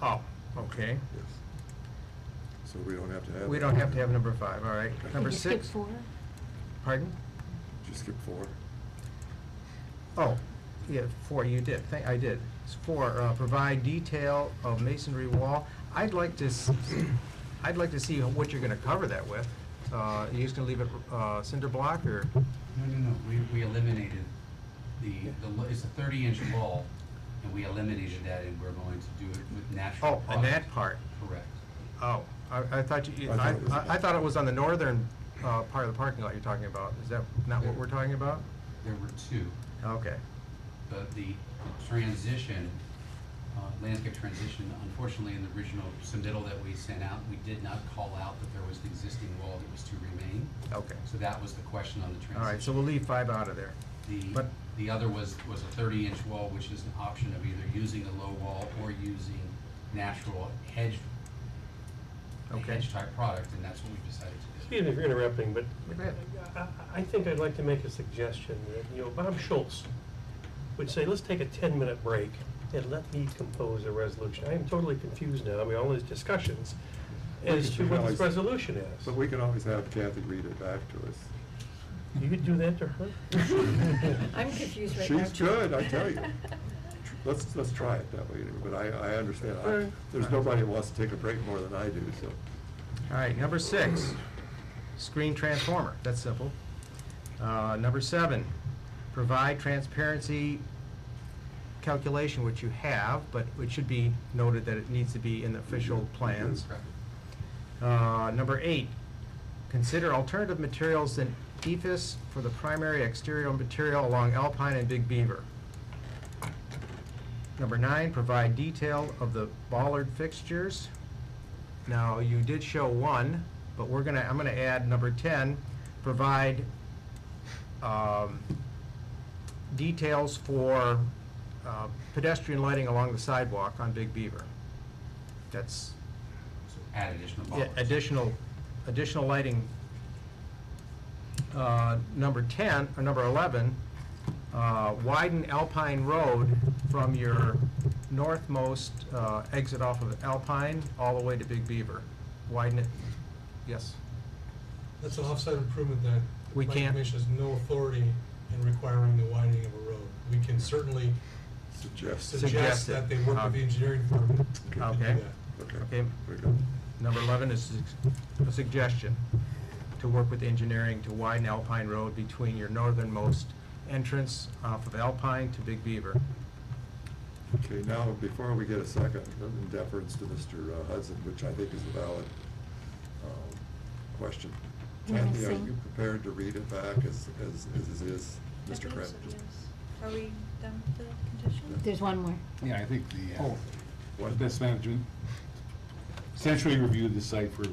Oh, okay. Yes. So we don't have to have. We that. don't have to have number five, all right. Did Number Did you skip six? four? Pardon? Did you skip four? Oh, yeah, four, you did, Thank- I did. It's Four, uh, provide detail of masonry wall. I'd like to, s- I'd like to see what you're gonna cover that with. Uh, you just gonna leave it uh, cinder block, or, No, no, no, we, we eliminated the, the, lo- it's a thirty inch wall, and we eliminated that, and we're going to do it with natural oh, product. on that part? Correct. Oh, I, I thought you, I thought I, it was I- I thought it was on the northern, uh, part of the parking lot you're talking about. Is that not what we're talking about? There were two, Okay, but the transition, uh, landscape transition, unfortunately, in the original submittal that we sent out, we did not call out that there was an existing wall that was to remain, okay. so that was the question on the transition. All right, so we'll leave five out of there. The, But- the other was, was a thirty-inch wall, which is an option of either using a low wall or using natural hedge, a Okay. hedge-type product, and that's what we decided to do. Excuse me for interrupting, but Go ahead. I- I- I think I'd like to make a suggestion that, you know, Bob Schultz would say, let's take a 10-minute break and let me compose a resolution. I am totally confused now, I mean, all these discussions as to what this resolution is. But we can always have Kathy read it back to us. You could do that to her? I'm confused right now. She's too. good, I tell you. Let's, let's try it that way, anyway, but I, I understand. I- All right. There's nobody who wants to take a break more than I do, so. All right, number six, screen transformer, that's simple. Uh, Number seven, provide transparency calculation, which you have, but it should be noted that it needs to be in the official plans. Correct. Uh, Number eight, consider alternative materials than EFS for the primary exterior material along Alpine and Big Beaver. Number nine, provide detail of the bollard fixtures. Now, you did show one, but we're gonna, I'm gonna add number ten, provide um, details for uh, pedestrian lighting along the sidewalk on Big Beaver. That's, So Add additional yeah, bollards. additional, additional lighting. Uh, Number 10, or number 11, uh, widen Alpine Road from your northmost uh, exit off of Alpine all the way to Big Beaver. Widen it, yes. That's an offsite improvement that We the planning can't- commission has no authority in requiring the widening of a road. We can certainly Suggest. Suggest suggest it. that they work with Okay. the engineering firm to do Okay. that. Okay. Okay. Very good. Number 11 is a suggestion to work with engineering to widen Alpine Road between your northernmost entrance off of Alpine to Big Beaver. Okay, now, before we get a second, in deference to Mr. Hudson, which I think is a valid um, question. Can I Kathy, are sing? you prepared to read it back as, as, as it is, I Mr. believe Kraft? so, yes. Are we done with the conditions? There's one more. Yeah, I think the, Oh. uh, best management, essentially reviewed the site for, uh,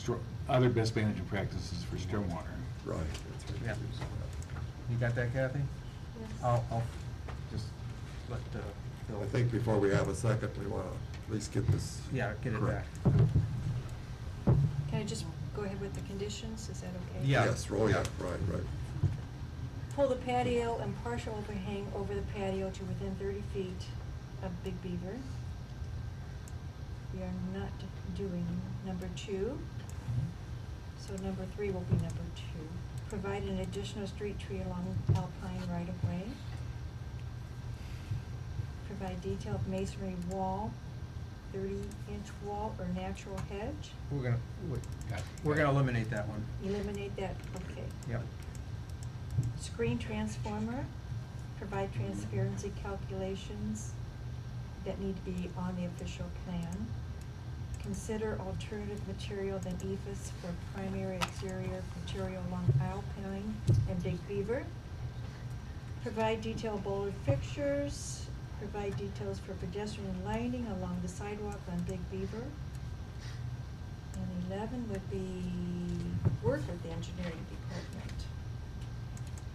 stro- other best management practices for stormwater. Right, that's right. You got that, Kathy? Yes. I'll, I'll just let uh, Bill. I think before we have a second, we want to at least get this. Yeah, get it correct. back. Can I just go ahead with the conditions? Is that okay? Yeah. Yes, roll, yeah, right, right. Pull the patio and partial overhang over the patio to within thirty feet of Big Beaver. We are not doing number two, so number three will be number two. Provide an additional street tree along Alpine right of way. Provide detailed masonry wall, thirty-inch wall or natural hedge. We're gonna, we- Got it. we're gonna eliminate that one. Eliminate that, okay. Yep. Screen transformer, provide transparency calculations that need to be on the official plan. Consider alternative material than E EFS for primary exterior material along Alpine and Big Beaver. Provide detailed bollard fixtures, provide details for pedestrian lighting along the sidewalk on Big Beaver. And eleven would be work with the engineering department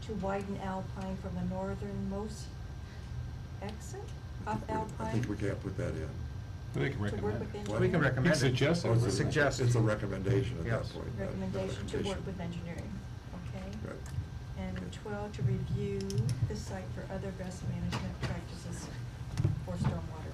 to widen Alpine from the northernmost exit off I Alpine. think we can't put that in. But they can To work recommend with it. engineering. We can recommend it. Suggest Or Oh, is it- Suggest. It's a recommendation at that Yes. point. not a Recommendation to work with recommendation. engineering, okay? Right. And Okay. twelve, to review the site for other best management practices for stormwater